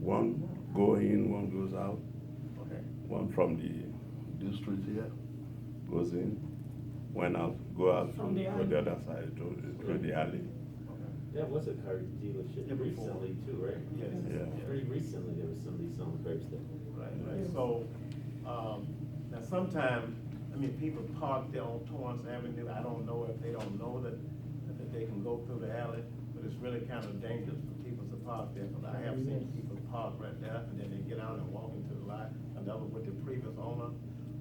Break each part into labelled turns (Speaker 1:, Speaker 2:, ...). Speaker 1: One go in, one goes out.
Speaker 2: Okay.
Speaker 1: One from the this street here goes in, one out go out
Speaker 3: From the
Speaker 1: to
Speaker 3: alley.
Speaker 1: the other side to, to the alley.
Speaker 4: That was a car dealership
Speaker 2: Yeah, before.
Speaker 4: recently too, right?
Speaker 2: Yes.
Speaker 1: Yeah.
Speaker 4: Pretty recently, there was somebody selling curbs there.
Speaker 2: Right, right, so, um, now sometime, I mean, people park there on Torrance Avenue, I don't know if they don't know that, that they can go through the alley, but it's really kind of dangerous for people to park there, because I have seen people park right there, and then they get out and walk into the lot, another with the previous owner.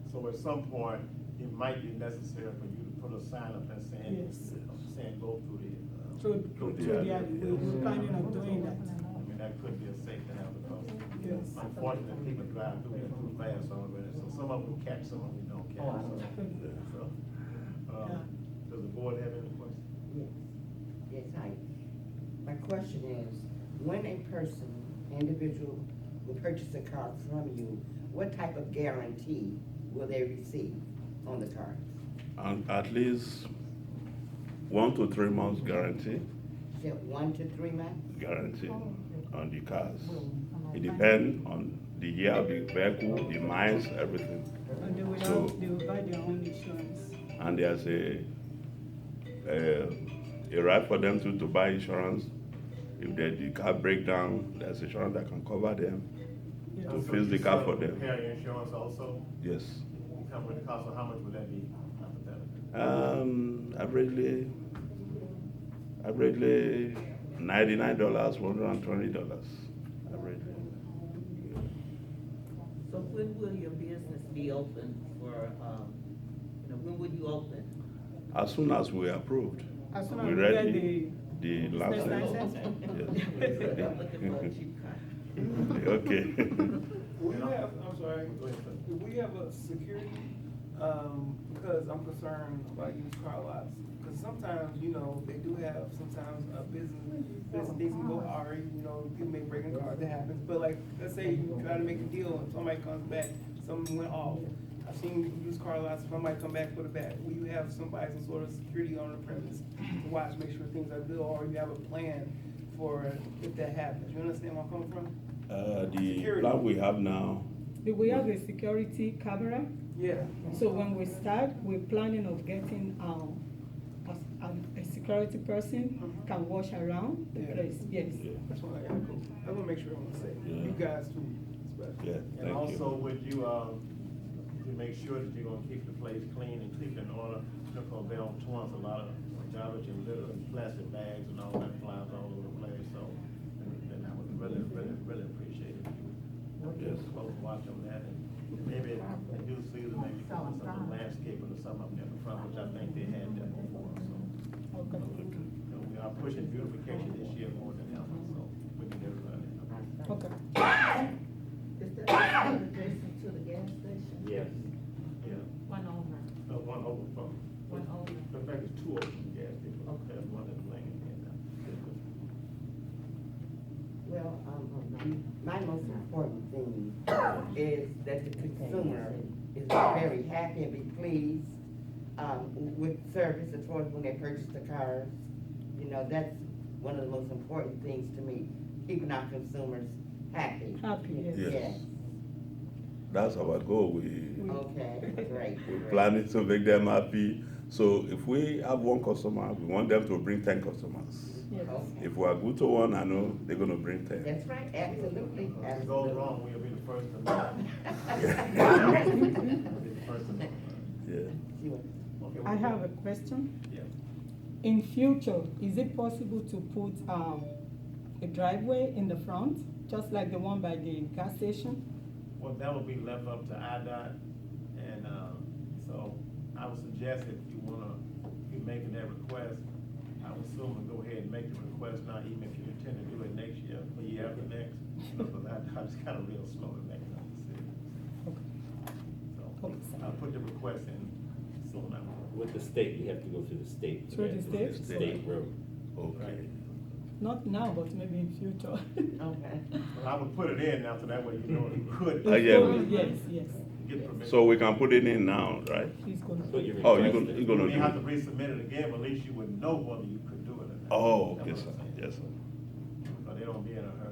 Speaker 2: So at some point, it might be necessary for you to put a sign up there saying,
Speaker 3: Yes.
Speaker 2: saying go through the, uh,
Speaker 3: through,
Speaker 1: Through
Speaker 3: through
Speaker 1: the
Speaker 3: the alley,
Speaker 1: alley,
Speaker 3: we
Speaker 1: yes.
Speaker 3: we're planning on doing that.
Speaker 2: I mean, that could be a safety hazard, because
Speaker 3: Yes.
Speaker 2: unfortunately, people drive through it too fast already, so some of them catch, some of them don't catch. so- so, um,
Speaker 3: Oh, Yeah.
Speaker 2: Does the board have any questions?
Speaker 5: Yes, yes, I, my question is, when a person, individual, will purchase a car from you, what type of guarantee will they receive on the car?
Speaker 1: And at least one to three months guarantee,
Speaker 5: Is it one to three months?
Speaker 1: guarantee
Speaker 3: Oh.
Speaker 1: on the cars. It depends on the year of the vehicle, the miles, everything.
Speaker 3: And they will
Speaker 1: So-
Speaker 3: have, they will buy their own insurance.
Speaker 1: and there's a uh, a right for them to, to buy insurance. If the, the car break down, there's insurance that can cover them.
Speaker 3: Yeah.
Speaker 1: To fix the car for them.
Speaker 2: Repair insurance also,
Speaker 1: Yes.
Speaker 2: it come with a cost, so how much would that be hypothetically?
Speaker 1: Um, averagely, averagely ninety-nine dollars, one hundred and twenty dollars, averagely.
Speaker 6: So when will your business be open for, um, you know, when would you open?
Speaker 1: As soon as we approved,
Speaker 3: As soon as
Speaker 1: we
Speaker 3: we get
Speaker 1: ready
Speaker 3: the
Speaker 1: the
Speaker 3: business
Speaker 1: license.
Speaker 3: license.
Speaker 1: Yes.
Speaker 6: Looking for a cheap car.
Speaker 1: Okay.
Speaker 7: We have, I'm sorry,
Speaker 2: Go ahead, sir.
Speaker 7: Do we have a security, um, because I'm concerned about used car lots. Cause sometimes, you know, they do have, sometimes a business, business things can go awry, you know, people may break in cars, that happens. But like, let's say you try to make a deal and somebody comes back, something went off. I've seen used car lots, somebody come back with a bat. Will you have somebody, some sort of security on the premise to watch, make sure things are good, or you have a plan for if that happens? You understand where I'm coming from?
Speaker 1: Uh, the
Speaker 7: Security.
Speaker 1: plan we have now,
Speaker 3: Do we have a security camera?
Speaker 7: Yeah.
Speaker 3: So when we start, we're planning of getting, um, a, a, a security person
Speaker 7: Mhm.
Speaker 3: can watch around the
Speaker 7: Yeah.
Speaker 3: place, yes.
Speaker 1: yeah,
Speaker 7: That's why I gotta go. I wanna make sure I'm safe.
Speaker 1: Yeah.
Speaker 7: You guys too, especially.
Speaker 1: yeah, thank you.
Speaker 2: And also, would you, um, to make sure that you're gonna keep the place clean and keep it in order, because they don't toss a lot of garbage and litter and plastic bags and all that flies all over the place, so, and and I would really, really, really appreciate it if you would
Speaker 1: Yes.
Speaker 2: just close watch on that, and maybe in due season, maybe come with some landscaping or something up there in the front, which I think they had there before, so.
Speaker 3: Okay.
Speaker 2: You know, we are pushing beautification this year more than ever, so we can get everybody.
Speaker 3: Okay.
Speaker 8: Is that adjacent to the gas station?
Speaker 2: Yes. Yeah,
Speaker 8: One over,
Speaker 2: Uh, one over from.
Speaker 8: one over.
Speaker 2: In fact, it's two of them, yes, there's one in Langley and, uh,
Speaker 5: Well, um, my most important thing is that the consumer is very happy and be pleased, um, with service as far as when they purchase the cars. You know, that's one of the most important things to me, keeping our consumers happy.
Speaker 3: Happy, yes.
Speaker 1: Yes. That's our goal. We
Speaker 5: Okay, great.
Speaker 1: we
Speaker 5: great.
Speaker 1: plan it to make them happy. So if we have one customer, we want them to bring ten customers.
Speaker 3: Yes.
Speaker 5: Okay.
Speaker 1: If we are good to one, I know they're gonna bring ten.
Speaker 5: That's right, absolutely,
Speaker 2: Uh, If it goes
Speaker 5: absolutely.
Speaker 2: wrong, we'll be the first to know. We'll be the first to know.
Speaker 1: Yeah.
Speaker 5: You want-
Speaker 2: Okay,
Speaker 3: I
Speaker 2: we-
Speaker 3: have a question.
Speaker 2: Yeah.
Speaker 3: In future, is it possible to put, um, a driveway in the front, just like the one by the gas station?
Speaker 2: Well, that would be left up to IDOT, and, um, so I would suggest if you wanna, if you're making that request, I would assume and go ahead and make the request now, even if you intend to do it next year, or year after next, because IDOT's kinda real slow in making that decision. So,
Speaker 3: Okay.
Speaker 2: I'll put the request in soon after.
Speaker 4: With the state, we have to go through the state.
Speaker 3: Through the state?
Speaker 4: State road.
Speaker 1: Okay.
Speaker 3: Not now, but maybe in future.
Speaker 5: Okay.
Speaker 2: Well, I would put it in now, so that way you know you could.
Speaker 1: Uh, yeah.
Speaker 3: Yes, yes,
Speaker 2: Get permission.
Speaker 1: So we can put it in now, right?
Speaker 3: please go.
Speaker 4: Put your
Speaker 1: Oh, you
Speaker 4: request
Speaker 1: gonna
Speaker 4: in.
Speaker 1: you
Speaker 2: You
Speaker 1: gonna
Speaker 2: may have to
Speaker 1: do? it.
Speaker 2: resubmit it again, but at least you would know whether you could do it or not.
Speaker 1: Oh,
Speaker 2: That's
Speaker 1: okay,
Speaker 2: what
Speaker 1: sir.
Speaker 2: I'm saying.
Speaker 1: Yes, sir.
Speaker 2: But they don't be in a hurry.